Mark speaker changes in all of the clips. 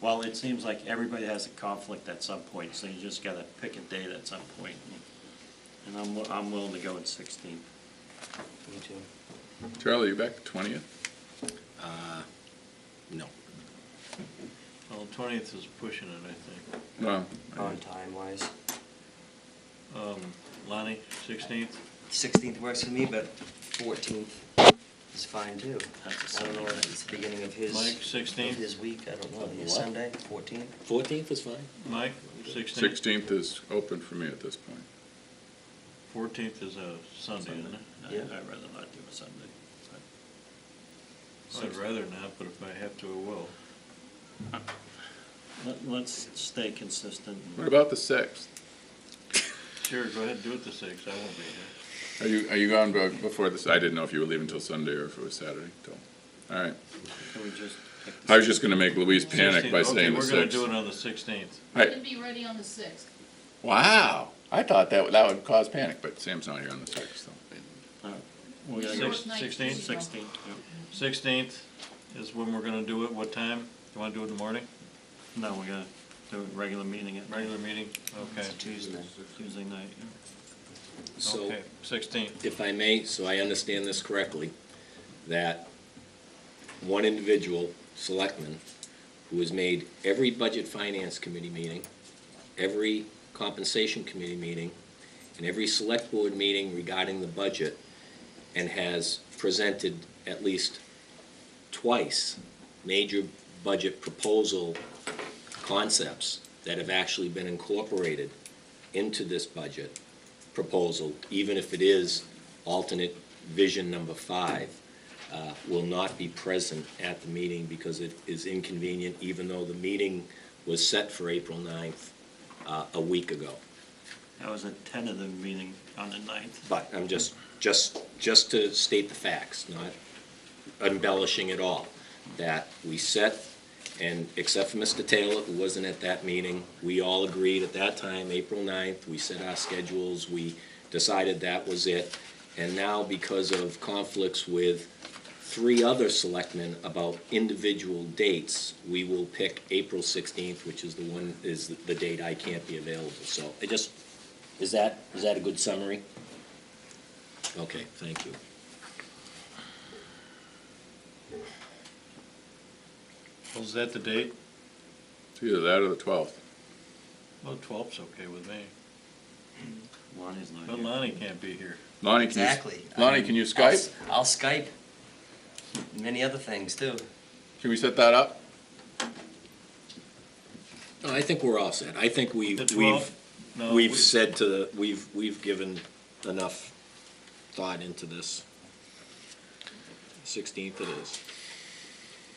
Speaker 1: Well, it seems like everybody has a conflict at some point, so you just gotta pick a date at some point. And I'm, wi- I'm willing to go in sixteen.
Speaker 2: Me too.
Speaker 3: Charlie, you back the twentieth?
Speaker 4: Uh, No.
Speaker 5: Well, twentieth is pushing it, I think.
Speaker 3: No.
Speaker 2: On time wise.
Speaker 5: Lonnie, sixteenth?
Speaker 2: Sixteenth works for me, but fourteenth is fine too.
Speaker 1: That's a
Speaker 2: I don't know,
Speaker 1: Sunday.
Speaker 2: if it's the beginning of his.
Speaker 5: Mike, 16th?
Speaker 2: of His week, I don't know,
Speaker 4: Of
Speaker 2: his
Speaker 4: what?
Speaker 2: Sunday, fourteenth?
Speaker 4: Fourteenth is fine.
Speaker 5: Mike, sixteenth?
Speaker 3: Sixteenth is open for me at this point.
Speaker 5: Fourteenth is a Sunday, isn't it?
Speaker 1: I'd
Speaker 2: Yeah.
Speaker 1: I'd rather not do a Sunday. but
Speaker 5: I'd rather not, but if I have to, I will.
Speaker 1: Let, let's stay consistent.
Speaker 3: What about the sixth?
Speaker 5: Sure, go ahead, do it the sixth, I won't be here.
Speaker 3: Are you, are you gone be- before this? I didn't know if you were leaving till Sunday or if it was Saturday till, all right.
Speaker 1: Can we just pick the
Speaker 3: I was just gonna make Louise panic
Speaker 5: 16th,
Speaker 3: by saying the
Speaker 5: Okay, we're gonna
Speaker 3: sixth.
Speaker 5: do it on the sixteenth.
Speaker 3: Right.
Speaker 6: It'd be ready on the sixth.
Speaker 3: Wow, I thought that, would- that would cause panic, but Sam's not here on the sixth, so.
Speaker 1: All right, We're gonna go
Speaker 5: Six- sixteenth?
Speaker 1: sixteen, yeah.
Speaker 5: Sixteenth is when we're gonna do it, what time? You wanna do it in the morning?
Speaker 1: No, we're gonna do a regular meeting at
Speaker 5: Regular meeting, okay.
Speaker 2: It's Tuesday.
Speaker 1: Tuesday night. yeah.
Speaker 4: So,
Speaker 5: Okay, Sixteenth.
Speaker 4: if I may, so I understand this correctly, that one individual, selectman, who has made every budget finance committee meeting, every compensation committee meeting, and every select board meeting regarding the budget, and has presented at least twice major budget proposal concepts that have actually been incorporated into this budget proposal, even if it is alternate vision number five, uh, will not be present at the meeting because it is inconvenient, even though the meeting was set for April 9th uh, a week ago.
Speaker 1: That was a tentative meeting on the ninth.
Speaker 4: But I'm just, just, just to state the facts, not embellishing at all, that we set, and except for Mr. Taylor, who wasn't at that meeting, we all agreed at that time, April 9th, we set our schedules, we decided that was it. And now, because of conflicts with three other selectmen about individual dates, we will pick April 16th, which is the one, is the- the date I can't be available. So I just, is that, is that a good summary? Okay, thank you.
Speaker 5: Was that the date?
Speaker 3: It's either that or the twelfth.
Speaker 5: Well, twelfth's okay with me,
Speaker 1: Lonnie's not
Speaker 5: but
Speaker 1: here.
Speaker 5: Lonnie can't be here.
Speaker 3: Lonnie, can you?
Speaker 2: Exactly.
Speaker 3: Lonnie, can you
Speaker 2: I'll
Speaker 3: Skype?
Speaker 2: s- I'll Skype. Many other things too.
Speaker 3: Can we set that up?
Speaker 4: No, I think we're all set. I think we,
Speaker 5: The
Speaker 4: we've,
Speaker 5: 12th? No,
Speaker 4: we've
Speaker 5: we-
Speaker 4: said to, the we've, we've given enough thought into this. Sixteenth it is.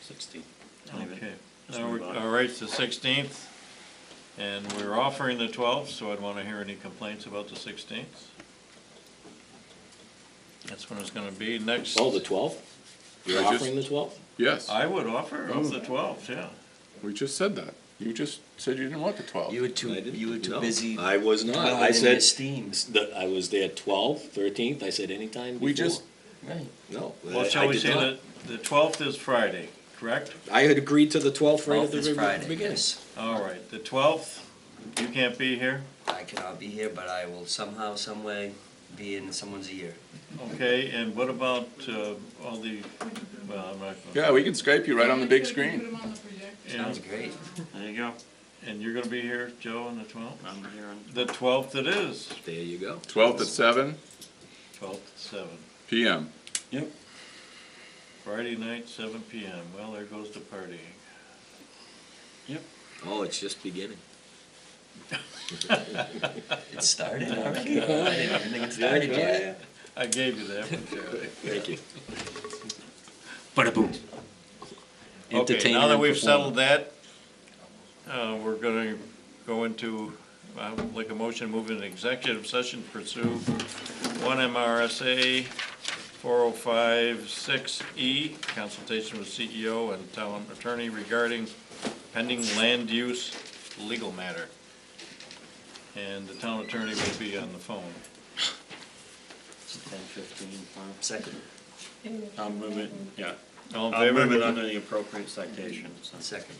Speaker 1: Sixteen. Leave it.
Speaker 5: Okay,
Speaker 1: Just
Speaker 5: now
Speaker 1: move
Speaker 5: we're,
Speaker 1: on.
Speaker 5: all right, it's the sixteenth, and we're offering the twelfth, so I'd wanna hear any complaints about the sixteenth. That's when it's gonna be, next,
Speaker 4: Oh, the twelfth? You're
Speaker 3: I just-
Speaker 4: offering the twelfth?
Speaker 3: Yes,
Speaker 5: I would offer of the twelfth, yeah.
Speaker 3: we just said that. You just said you didn't want the twelfth.
Speaker 2: You were too, you were too busy.
Speaker 4: I was not.
Speaker 2: dwelling
Speaker 4: I
Speaker 2: in
Speaker 4: said,
Speaker 2: your Steam.
Speaker 4: the- I was there twelve, thirteenth, I said anytime before.
Speaker 3: We just-
Speaker 2: Right.
Speaker 4: No.
Speaker 5: Well,
Speaker 4: I-
Speaker 5: shall
Speaker 4: I
Speaker 5: we
Speaker 4: did
Speaker 5: say
Speaker 4: not.
Speaker 5: that the twelfth is Friday, correct?
Speaker 4: I had agreed to the twelfth right at
Speaker 2: Twelfth
Speaker 4: the
Speaker 2: is
Speaker 4: very
Speaker 2: Friday,
Speaker 4: beginning.
Speaker 2: yes.
Speaker 5: All right, the twelfth, you can't be here,
Speaker 2: I cannot be here, but I will somehow, some way be in someone's ear.
Speaker 5: okay, and what about, uh, all the, well, I'm not.
Speaker 3: Yeah, we can Skype you right on the big
Speaker 6: Put
Speaker 3: screen.
Speaker 6: 'em on the projector.
Speaker 2: Sounds
Speaker 5: And,
Speaker 2: great.
Speaker 1: There you go.
Speaker 5: and you're gonna be here, Joe, on the twelfth?
Speaker 1: I'm here on
Speaker 5: The twelfth it is,
Speaker 4: There you go.
Speaker 3: Twelfth at seven
Speaker 5: twelfth, seven.
Speaker 3: PM.
Speaker 1: Yep.
Speaker 5: Friday night, seven PM. Well, there goes the partying.
Speaker 4: Oh, it's just beginning.
Speaker 2: It started already. I didn't even think it started yet.
Speaker 5: I gave you that one, Charlie.
Speaker 4: Thank you.
Speaker 1: Ba-da-boom.
Speaker 5: Okay, now that we've settled that, uh, we're gonna go into, uh, like a motion, move into executive session, pursue one MRSA four oh five six E, consultation with CEO and town attorney regarding pending land use legal matter. And the town attorney will be on the phone.
Speaker 1: It's ten fifteen, five.
Speaker 2: Second,
Speaker 1: I'll move it, yeah.
Speaker 5: All in
Speaker 1: I'll
Speaker 5: favor?
Speaker 1: move it under the appropriate citation, so.
Speaker 2: second.